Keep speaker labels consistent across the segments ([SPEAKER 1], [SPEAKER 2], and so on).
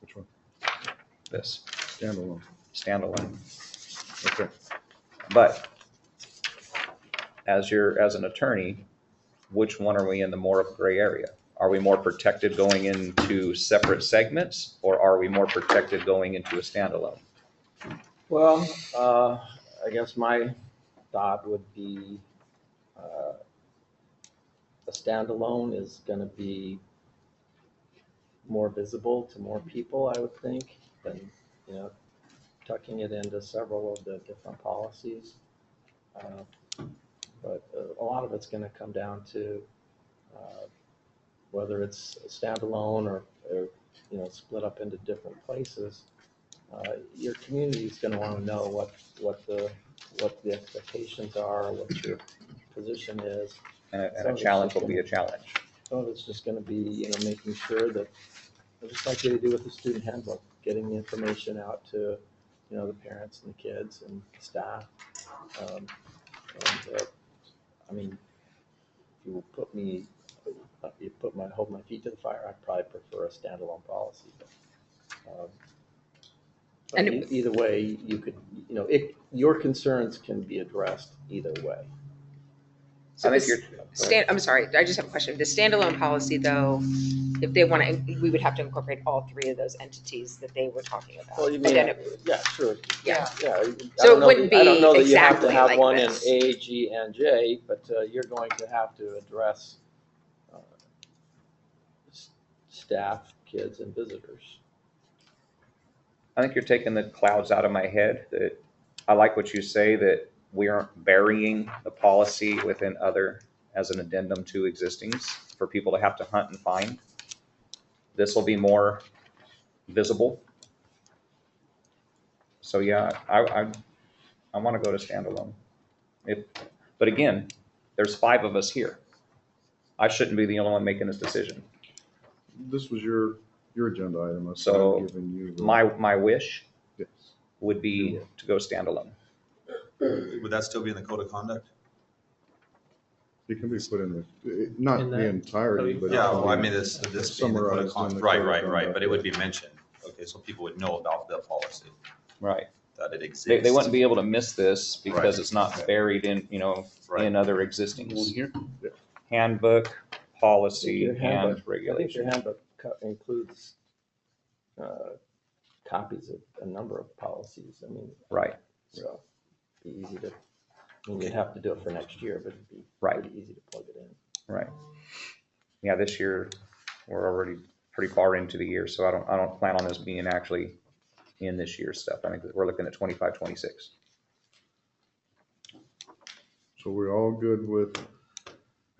[SPEAKER 1] Which one?
[SPEAKER 2] this
[SPEAKER 1] Standalone.
[SPEAKER 2] standalone.
[SPEAKER 1] Okay.
[SPEAKER 2] But as your, as an attorney, which one are we in the more of gray area? Are we more protected going into separate segments or are we more protected going into a standalone?
[SPEAKER 3] Well, uh, I guess my thought would be, uh, a standalone is gonna be more visible to more people, I would think, than, you know, tucking it into several of the different policies. Uh, But uh, a lot of it's gonna come down to, uh, whether it's standalone or, or, you know, split up into different places uh, your community is gonna wanna know what, what the, what the expectations are, what your position is.
[SPEAKER 2] And a, and a challenge will be a challenge.
[SPEAKER 3] Some of it's just gonna be, you know, making sure that, just like they do with the student handbook, getting the information out to, you know, the parents and the kids and staff. Um, And, uh, I mean, if you will put me, if you put my, hold my feet to the fire, I'd probably prefer a standalone policy, but. um, but
[SPEAKER 4] And
[SPEAKER 3] e- Either way, you could, you know, it, your concerns can be addressed either way.
[SPEAKER 4] So
[SPEAKER 2] And if
[SPEAKER 4] this
[SPEAKER 2] you're-
[SPEAKER 4] stand, I'm sorry, I just have a question. The standalone policy though, if they want to, we would have to incorporate all three of those entities that they were talking about.
[SPEAKER 3] Well, you
[SPEAKER 4] But
[SPEAKER 3] mean,
[SPEAKER 4] then it-
[SPEAKER 3] yeah, sure.
[SPEAKER 4] Yeah.
[SPEAKER 3] Yeah. I
[SPEAKER 4] So it
[SPEAKER 3] don't know-
[SPEAKER 4] wouldn't
[SPEAKER 3] I don't
[SPEAKER 4] be
[SPEAKER 3] know that you have to
[SPEAKER 4] exactly
[SPEAKER 3] have
[SPEAKER 4] like
[SPEAKER 3] One in
[SPEAKER 4] this.
[SPEAKER 3] A, G, and J, but uh, you're going to have to address uh, s- staff, kids, and visitors.
[SPEAKER 2] I think you're taking the clouds out of my head that I like what you say that we aren't burying the policy within other as an addendum to existings for people to have to hunt and find. This will be more visible. So yeah, I, I, I want to go to standalone. If, but again, there's five of us here. I shouldn't be the only one making this decision.
[SPEAKER 1] This was your, your agenda item. I'm
[SPEAKER 2] So,
[SPEAKER 1] giving you the-
[SPEAKER 2] My, my wish
[SPEAKER 1] Yes.
[SPEAKER 2] would be to go standalone.
[SPEAKER 5] Would that still be in the code of conduct?
[SPEAKER 1] It can be put in the, it- not
[SPEAKER 3] In
[SPEAKER 1] the
[SPEAKER 3] that-
[SPEAKER 1] entirety, but.
[SPEAKER 5] Yeah, well, I
[SPEAKER 1] it's-
[SPEAKER 5] mean, this, this being the code
[SPEAKER 1] Summarized in
[SPEAKER 5] of conduct,
[SPEAKER 1] the
[SPEAKER 5] right,
[SPEAKER 1] code of
[SPEAKER 5] right, right,
[SPEAKER 1] conduct,
[SPEAKER 5] but it would
[SPEAKER 1] yeah.
[SPEAKER 5] be mentioned. Okay, so people would know about the policy,
[SPEAKER 2] Right.
[SPEAKER 5] that it
[SPEAKER 2] They,
[SPEAKER 5] exists.
[SPEAKER 2] they wouldn't be able to miss this because
[SPEAKER 5] Right.
[SPEAKER 2] it's not buried in, you know, in
[SPEAKER 5] Right,
[SPEAKER 2] other
[SPEAKER 1] One
[SPEAKER 2] existing
[SPEAKER 1] here? Yeah.
[SPEAKER 2] handbook, policy,
[SPEAKER 3] Your handbook.
[SPEAKER 2] and
[SPEAKER 3] I think your
[SPEAKER 2] regulation.
[SPEAKER 3] handbook co- includes uh, copies of a number of policies. I mean,
[SPEAKER 2] Right,
[SPEAKER 3] so it'd be easy to, I mean, you'd have to do it for next year, but it'd be
[SPEAKER 2] Right.
[SPEAKER 3] pretty easy to plug it in.
[SPEAKER 2] right. Yeah, this year, we're already pretty far into the year, so I don't, I don't plan on this being actually in this year's stuff. I think that we're looking at twenty-five, twenty-six.
[SPEAKER 1] So we're all good with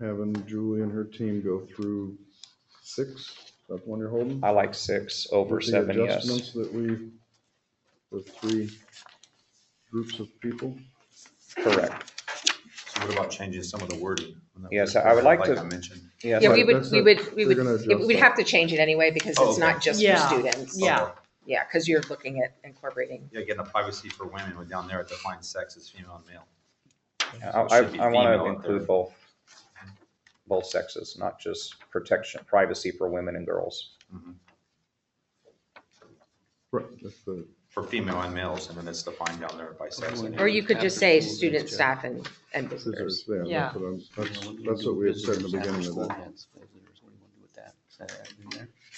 [SPEAKER 1] having Julie and her team go through six? That's one you're holding?
[SPEAKER 2] I like six over
[SPEAKER 1] With the
[SPEAKER 2] seven, yes.
[SPEAKER 1] Adjustments that we, with three groups of people.
[SPEAKER 2] Correct.
[SPEAKER 5] so what about changing some of the wording?
[SPEAKER 2] Yes, I would like to-
[SPEAKER 5] I mentioned.
[SPEAKER 2] Yes,
[SPEAKER 4] Yeah,
[SPEAKER 1] Right,
[SPEAKER 4] we would,
[SPEAKER 1] that's
[SPEAKER 4] we
[SPEAKER 1] a-
[SPEAKER 4] would, we
[SPEAKER 1] they're
[SPEAKER 4] would,
[SPEAKER 1] gonna
[SPEAKER 4] it-
[SPEAKER 1] adjust
[SPEAKER 4] we'd
[SPEAKER 1] that.
[SPEAKER 4] have to change it anyway because
[SPEAKER 5] Oh,
[SPEAKER 4] it's
[SPEAKER 5] okay.
[SPEAKER 4] not just for
[SPEAKER 6] Yeah.
[SPEAKER 4] students.
[SPEAKER 6] Yeah.
[SPEAKER 5] Okay.
[SPEAKER 4] Yeah, because you're looking at incorporating.
[SPEAKER 5] Yeah, getting the privacy for women, we're down there at defined sex as female and male.
[SPEAKER 2] I,
[SPEAKER 5] So it should be
[SPEAKER 2] I want
[SPEAKER 5] female
[SPEAKER 2] to
[SPEAKER 5] up
[SPEAKER 2] include
[SPEAKER 5] there.
[SPEAKER 2] both, both sexes, not just protection, privacy for women and girls.
[SPEAKER 5] Mhm.
[SPEAKER 1] Right, that's the,
[SPEAKER 5] For female and males, and then it's defined down there by sex. and
[SPEAKER 4] Or
[SPEAKER 5] age.
[SPEAKER 4] you could just say student, staff and, and visitors.
[SPEAKER 1] scissors, yeah,
[SPEAKER 6] Yeah.
[SPEAKER 1] that's what I'm, that's, that's what we had said in the beginning of that.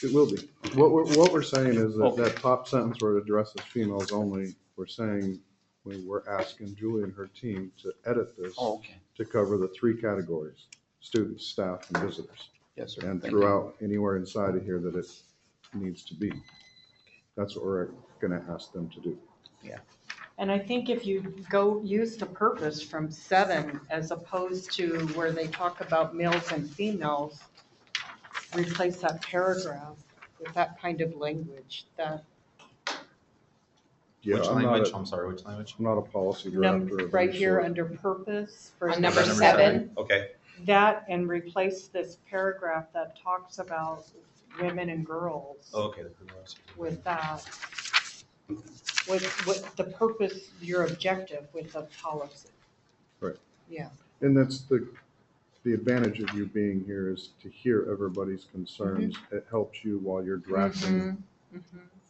[SPEAKER 1] It will be. What we're, what we're saying is that that top sentence where it addresses females only, we're saying, we we're asking Julie and her team to edit this
[SPEAKER 7] Oh, Okay,
[SPEAKER 1] to cover the three categories, students, staff, and visitors.
[SPEAKER 7] yes, sir.
[SPEAKER 1] And
[SPEAKER 7] Thank you.
[SPEAKER 1] throughout, anywhere inside of here that it needs to be. That's what we're gonna ask them to do.
[SPEAKER 6] And I think if you go use the purpose from seven as opposed to where they talk about males and females, replace that paragraph with that kind of language, that
[SPEAKER 1] Yeah,
[SPEAKER 5] Which
[SPEAKER 1] I'm not,
[SPEAKER 5] language,
[SPEAKER 1] a-
[SPEAKER 5] I'm sorry, which language?
[SPEAKER 1] I'm not a policy
[SPEAKER 6] num,
[SPEAKER 1] director. of
[SPEAKER 6] right
[SPEAKER 1] any
[SPEAKER 6] here
[SPEAKER 1] sort.
[SPEAKER 6] under purpose. for
[SPEAKER 4] On number seven.
[SPEAKER 5] Okay,
[SPEAKER 6] That and replace this paragraph that talks about women and girls
[SPEAKER 5] Oh, okay.
[SPEAKER 6] with that. With, with the purpose, your objective with the policy.
[SPEAKER 1] Right.
[SPEAKER 6] Yeah.
[SPEAKER 1] And that's the, the advantage of you being
[SPEAKER 6] Mm-hmm.
[SPEAKER 1] here is to hear everybody's concerns. It helps you while you're drafting
[SPEAKER 4] Mm-hmm.
[SPEAKER 6] Mhm, mhm.